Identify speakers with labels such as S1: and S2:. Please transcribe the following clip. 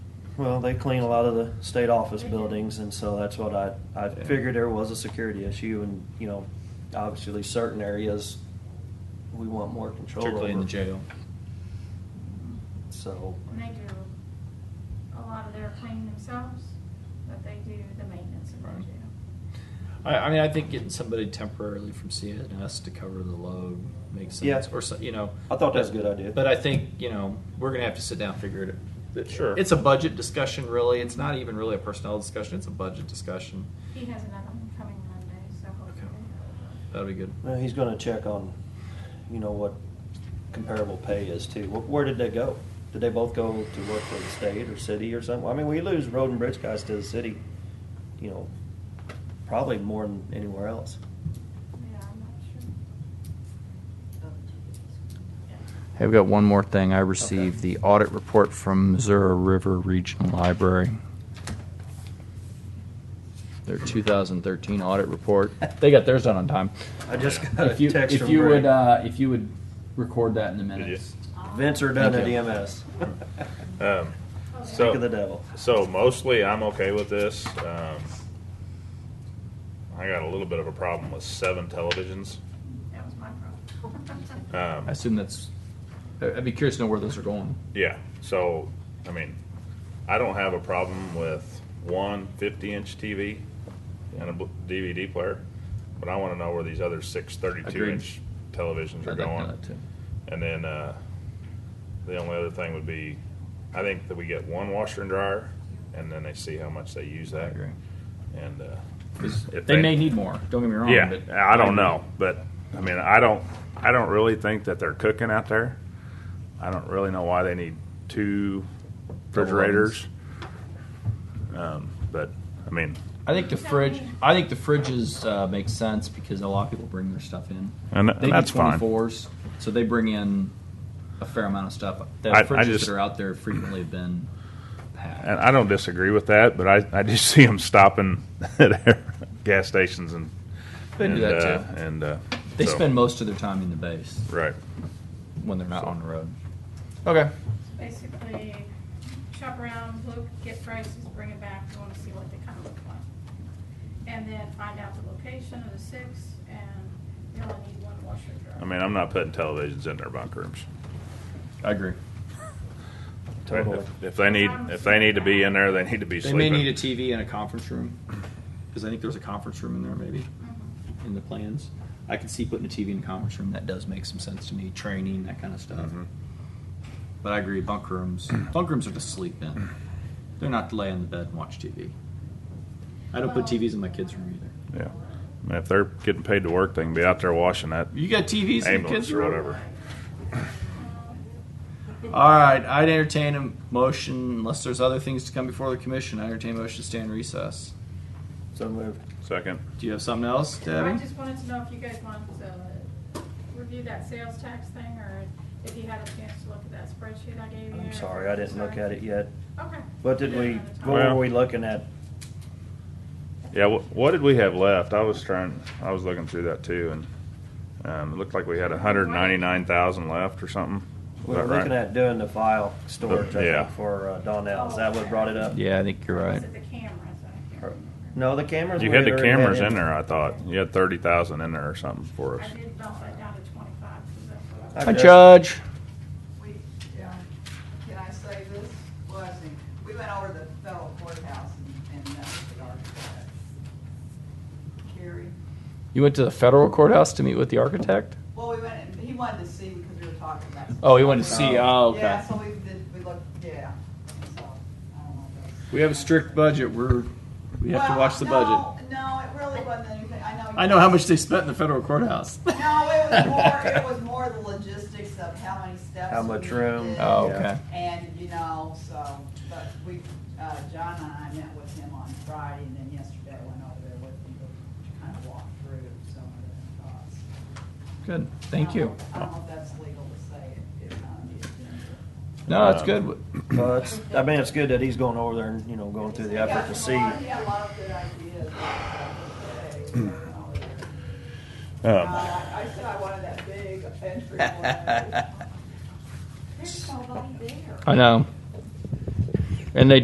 S1: Well, they clean a lot of the state office buildings, and so that's what I, I figured there was a security issue, and, you know, obviously certain areas, we want more control over.
S2: particularly in the jail.
S1: So,
S3: And they do, a lot of their cleaning themselves, but they do the maintenance of our
S4: Mm-hmm.
S2: Right.
S3: jail.
S2: I, I mean, I think getting somebody temporarily from CNS to cover the load makes sense.
S1: Yeah.
S2: Or, so- you know.
S1: I thought that was a good idea.
S2: But I think, you know, we're going to have to sit down and figure it out.
S4: Sure.
S2: It's a budget discussion, really. It's not even really a personnel discussion, it's a budget discussion.
S3: He has another one coming Monday, so hopefully.
S2: That'll be good.
S1: well, he's gonna check on, you know, what comparable pay is too. Wh- Where did they go? Did they both go to work for the state or city or something? I mean, we lose road and bridge guys to the city, you know, probably more than anywhere else.
S3: uh, Yeah, I'm not sure.
S5: I've got one more thing. I received the audit report from Missouri River Regional Library. Their 2013 audit report. They got theirs done on time.
S1: I just got
S6: If
S1: a
S6: you,
S1: text
S6: if
S1: from
S6: you would,
S1: Greg.
S6: uh, if you would record that in the minutes.
S1: Vince are done at E
S5: Thank you.
S1: EMS.
S4: Um,
S1: Speak of the
S4: so,
S1: devil.
S4: so mostly I'm okay with this. Um, I got a little bit of a problem with seven televisions.
S3: That was my problem.
S4: Um,
S5: I assume that's. I- I'd be curious to know where those are going.
S4: Yeah, so, I mean, I don't have a problem with one 50 inch TV and a bl- DVD player, but I wanna know where these other six 32
S5: Agreed.
S4: inch televisions are
S5: I'd like to know
S4: going.
S5: that too.
S4: And then, uh, the only other thing would be, I think that we get one washer and dryer and then they see how much they use that.
S5: agree.
S4: And, uh.
S5: 'Cause
S4: if
S5: They may need more. Don't get me wrong.
S4: Yeah,
S5: but
S4: I don't know, but, I mean, I don't, I don't really think that they're cooking out there. I don't really know why they need two refrigerators. Um, but, I mean,
S5: I think the fridge. I think the fridges uh, make sense because a lot of people bring their stuff in.
S4: And
S5: they
S4: that's
S5: do
S4: fine.
S5: 24s, so they bring in a fair amount of stuff. The
S4: I- I
S5: fridges
S4: just-
S5: that are out there frequently have been packed.
S4: and I don't disagree with that, but I, I just see them stopping at gas stations and.
S5: They do
S4: and,
S5: that
S4: uh,
S5: too.
S4: And, uh.
S5: they
S4: so-
S5: spend most of their time in the base
S4: Right.
S5: when they're not on the road. Okay.
S3: Basically, shop around, look, get prices, bring it back, we wanna see what they kinda look like. And then find out the location of the six, and they only need one washer and dryer.
S4: I mean, I'm not putting televisions in their bunk rooms.
S5: I agree.
S1: Totally.
S4: If- If they need, if they need to be in there, they need to be
S2: They
S4: sleeping.
S2: may need a TV in a conference room, because I think there's a conference room in there maybe, in the plans. I can see putting a TV in a conference room, that does make some sense to me, training, that kind of stuff.
S4: Mhm.
S2: But I agree, bunk rooms, bunk rooms are to sleep in. They're not to lay on the bed and watch TV. I don't put TVs in my kids' room either.
S4: Yeah. I mean, If they're getting paid to work, they can be out there washing that
S2: You got TVs in the
S4: ambulance
S2: kids'
S4: or
S2: room?
S4: whatever.
S3: Um,
S2: All right, I'd entertain a motion unless there's other things to come before the commission. I entertain a motion to stay in recess.
S1: So moved.
S4: Second.
S2: Do you have something else,
S3: I
S2: Debbie?
S3: just wanted to know if you guys wanted to review that sales tax thing, or if you had a chance to look at that spreadsheet I gave you.
S1: I'm sorry, I didn't look at it yet.
S3: Okay.
S1: What did we, what
S4: Well-
S1: were we looking at?
S4: Yeah, wh- what did we have left? I was trying, I was looking through that too, and um, it looked like we had 199,000 left or something. Is
S1: We
S4: that
S1: were
S4: right?
S1: looking at doing the file storage, I
S4: Yeah.
S1: think, for uh, Donnell. Is that what brought it up?
S5: Yeah, I think you're
S3: Was
S5: right.
S3: it the cameras? I can't remember.
S1: No, the cameras.
S4: You
S1: we
S4: had the
S1: already
S4: cameras in
S1: it.
S4: there, I thought. You had 30,000 in there or something for
S3: I
S4: us.
S3: did bump that down to twenty-five, because that's what I
S1: I
S3: was.
S5: Hi,
S1: Hi,
S5: Judge.
S7: We, yeah, can I say this? Well, I think, we went over to the federal courthouse and, and met with the architect. Carrie,
S5: You went to the federal courthouse to meet with the architect?
S7: well, we went, and he wanted to see because we were talking about. some
S5: Oh, he wanted to
S7: stuff.
S5: see. Oh, okay.
S7: Yeah, so we did, we looked, yeah, and so, I don't know. if
S2: We have a strict budget. We're we have to
S7: Well,
S2: watch the budget.
S7: No, no, it really wasn't anything, I know. you
S2: I know how
S7: guys-
S2: much they spent in the federal courthouse.
S7: No, it was more, it was more the logistics of how many steps.
S1: How much
S7: we
S1: room.
S7: did.
S5: Oh,
S1: Yeah.
S5: okay.
S7: And, you know, so, but we, uh, John and I met with him on Friday, and then yesterday I went over there with him to kind of walk through some of the thoughts.
S5: Good. Thank you.
S7: I don't know if that's legal to say it, it's not on the agenda.
S5: No, that's good.
S1: Well, it's, I mean, it's good that he's going over there and, you know, going through the effort to see.
S7: He had a lot of good ideas. uh, today, so, you
S1: Oh.
S7: know, Uh,
S4: Um,
S7: I I said I wanted that big entryway. There's nobody there.
S5: I know. And they